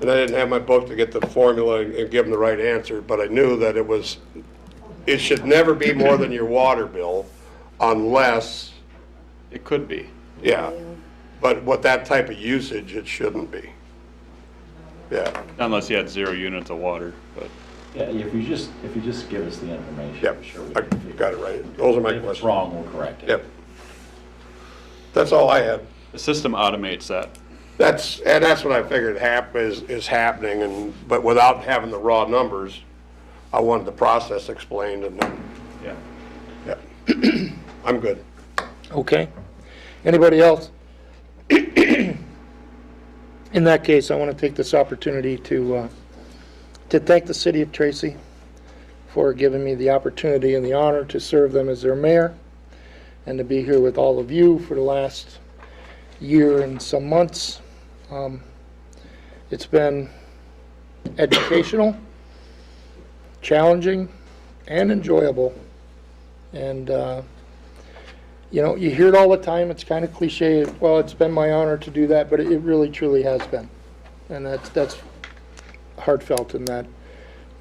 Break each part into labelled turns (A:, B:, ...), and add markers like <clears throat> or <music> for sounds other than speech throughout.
A: And I didn't have my book to get the formula and- and give them the right answer, but I knew that it was, it should never be more than your water bill unless,
B: It could be.
A: yeah. But with that type of usage, it shouldn't be. Yeah,
B: Unless you had zero units of water, but
C: Yeah, if you just, if you just give us the information.
A: yep,
C: I'm sure we
A: I
C: can figure
A: got it right. Those are my
C: If it's
A: questions.
C: wrong, we'll correct it.
A: Yep. That's all I had.
B: the system automates that.
A: That's, and that's what I figured hap, is, is happening and, but without having the raw numbers, I wanted the process explained and, then-
B: Yeah.
A: yeah. I'm good.
D: Okay. Anybody else? <clears throat> In that case, I want to take this opportunity to, uh, to thank the city of Tracy for giving me the opportunity and the honor to serve them as their mayor and to be here with all of you for the last year and some months. Um, It's been educational, challenging, and enjoyable. And, uh, you know, you hear it all the time, it's kind of cliche, well, it's been my honor to do that, but it really truly has been. And that's, that's heartfelt in that,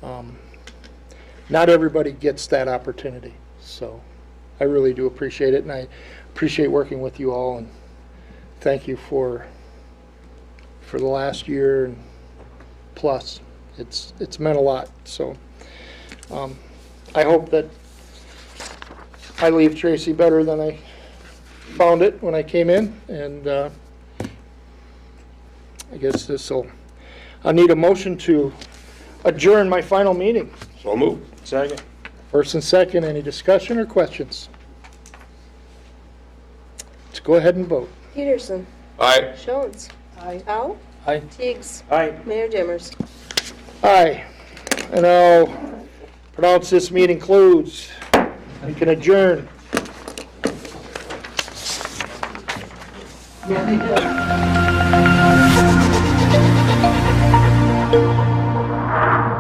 D: um, not everybody gets that opportunity, so I really do appreciate it, and I appreciate working with you all, and thank you for, for the last year and plus. It's, it's meant a lot, so, um, I hope that I leave Tracy better than I found it when I came in, and uh, I guess this'll, I need a motion to adjourn my final meeting.
A: So move.
E: Second.
D: First and second, any discussion or questions? Let's go ahead and vote.
F: Peterson.
A: All right.
F: Jones. Aye. Al.
D: Aye.
F: Teigs.
E: Aye.
F: Mayor Dimmers.
D: Aye. And I'll pronounce this meeting closed. We can adjourn.